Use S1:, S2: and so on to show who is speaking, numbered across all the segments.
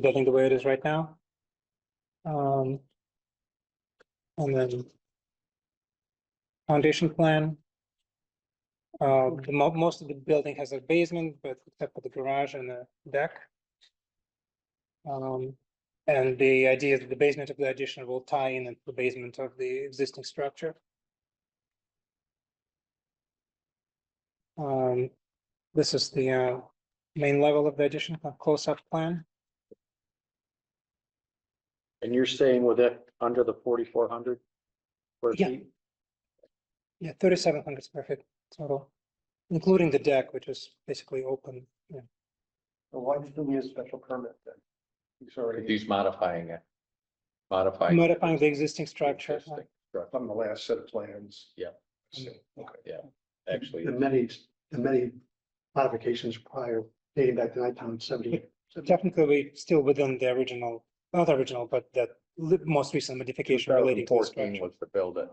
S1: building the way it is right now. Um, and then foundation plan. Uh, the mo- most of the building has a basement, but except for the garage and the deck. Um, and the idea is that the basement of the addition will tie in into the basement of the existing structure. Um, this is the, uh, main level of the addition, a close-up plan.
S2: And you're staying with it under the forty-four hundred?
S1: Yeah. Yeah, thirty-seven hundred square feet total, including the deck, which is basically open. yeah.
S3: Why do you need a special permit then? He's already
S2: He's modifying it. Modifying.
S1: Modifying the existing structure. uh,
S2: existing structure.
S3: on the last set of plans.
S2: Yeah.
S3: I see. Okay.
S2: Actually,
S4: The many, the many modifications prior dating back to nineteen seventy.
S1: Uh, Technically, we still within the original, not original, but that li- most recent modification relating to the
S2: 2014
S1: structure.
S2: was to build it.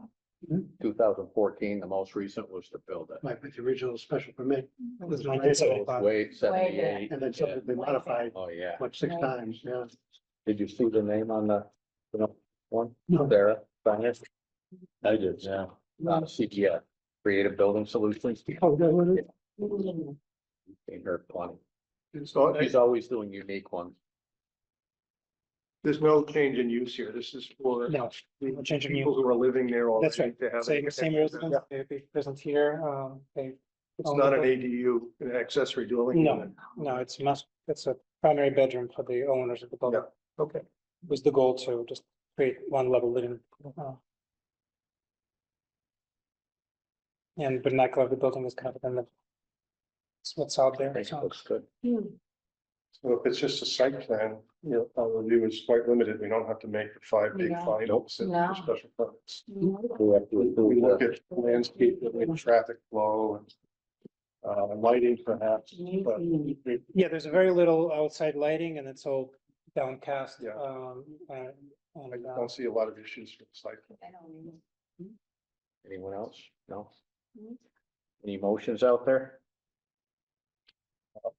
S4: Mhm.
S2: Two thousand fourteen, the most recent was to build it.
S4: Like with the original special permit,
S1: It was
S4: Right.
S1: nineteen
S2: It was
S1: seventy-five.
S2: Way seventy-eight.
S4: and then subsequently modified,
S2: Oh, yeah.
S4: what, six
S5: Right.
S4: times, yeah.
S2: Did you see the name on the the one?
S4: No.
S2: Sarah, Steiners? I did, yeah. Not a CGI, Creative Building Solutions.
S4: Oh, that was it?
S2: Seen her plenty.
S3: And so uh, I-
S2: He's always doing unique ones.
S3: there's no change in use here. This is for
S1: No,
S3: the
S1: change in
S3: people who are living there already.
S1: That's right.
S3: to have
S1: same,
S3: it.
S1: same residence, they they present here, um, they,
S3: It's not an ADU, an accessory dwelling.
S1: No.
S3: unit.
S1: no, it's must, it's a primary bedroom for the owners of the building.
S3: Okay.
S1: Was the goal to just create one level living. uh, And vernacular of the building is kind of in the. It's what's out
S2: I
S1: there,
S2: think it
S1: so,
S2: looks good.
S3: So if it's just a site plan, you know, our review is quite limited. We don't have to make the five big
S5: No.
S3: finals and
S5: No.
S3: for special permits.
S2: We have to
S3: We
S2: approve
S3: look
S2: the-
S3: at landscape, we look at traffic flow and uh, lighting perhaps, but we-
S1: yeah, there's very little outside lighting and it's all downcast,
S3: Yeah.
S1: um, uh,
S3: I
S1: and, uh,
S3: don't see a lot of issues with the site. plan.
S2: Anyone else? No? Any motions out there?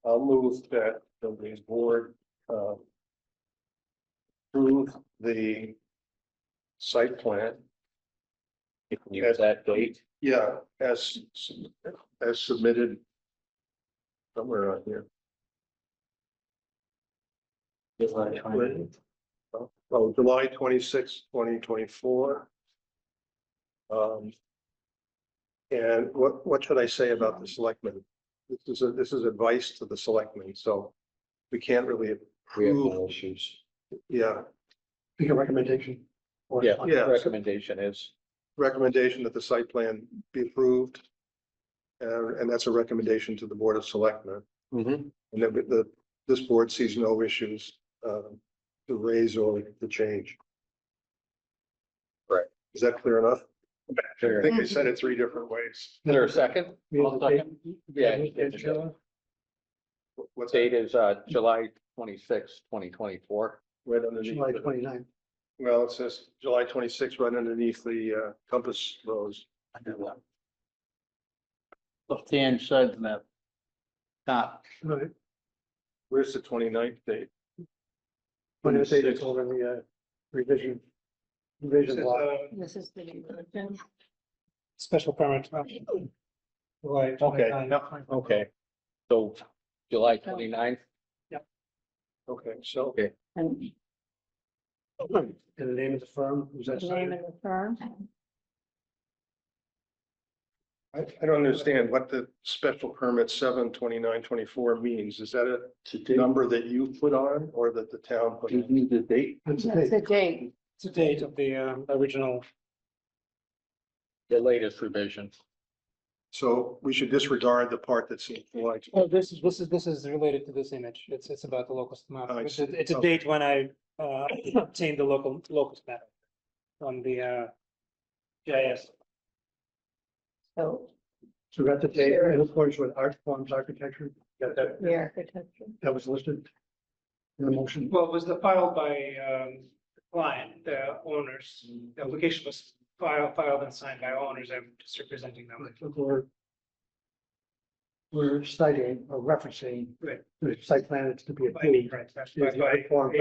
S3: I'll move that the Way's board uh, approve the site plan,
S2: You can use that date.
S3: yeah, as as submitted somewhere on here. Oh, July twenty sixth, twenty twenty four. Um. And what, what should I say about the selectmen? This is, a this is advice to the selectmen, so we can't really
S2: We have
S3: approve,
S2: no issues.
S3: yeah,
S4: Make a recommendation. or-
S2: Yeah,
S3: Yeah.
S2: recommendation is,
S3: recommendation that the site plan be approved. Uh, and that's a recommendation to the Board of Selectmen,
S2: Mhm.
S3: and that the, this board sees no issues, um, to raise or to change.
S2: Right.
S3: Is that clear enough? I
S2: Sure.
S3: think I said it three different ways.
S2: is there a second?
S4: We have
S2: I'll
S4: the date-
S2: second. Yeah.
S4: we have the date,
S2: Date
S4: Sheila?
S3: What's that?
S2: is uh, July twenty-sixth, twenty twenty-four.
S3: Right underneath,
S4: July
S3: it.
S4: 29th.
S3: well, it says July twenty-sixth, right underneath the uh, compass rose.
S2: Left-hand side in that top.
S4: Right.
S3: Where's the 29th date?
S4: Twenty eighth is over the uh, revision. Revision
S3: uh,
S4: law.
S5: This is the new version.
S1: special permit. uh, July
S2: Okay,
S1: 29.
S2: no,
S3: uh,
S2: okay. So July twenty-ninth,
S3: Okay, so
S5: And
S4: And the name of the firm, was that?
S5: the name
S4: cited?
S5: of the firm.
S3: I, I don't understand what the special permit seven twenty-nine twenty-four means. Is that a number that you put on or that the town put on?
S2: need the date.
S4: That's the date.
S5: That's the date.
S1: To date of the, um, original,
S2: The latest revision.
S3: So we should disregard the part that's in July.
S1: oh, this is, this is, this is related to this image, it's, it's about the locust map,
S3: Oh, I
S1: it's,
S3: see.
S1: a- it's a
S3: Okay.
S1: date when I, uh, obtained the local, locust map. On the, uh, GIS,
S5: So
S4: So we got the date, in accordance with art forms, architecture, got that,
S5: the architecture.
S4: that was listed. In the motion.
S6: Well, it was filed by um the client, the owners, the application was filed, filed and signed by owners, I'm just representing them.
S4: We're. We're citing or referencing.
S6: Right.
S4: The site plan that's to be
S6: By me,
S4: approved.
S6: right, that's
S4: Is the
S6: by-
S4: art form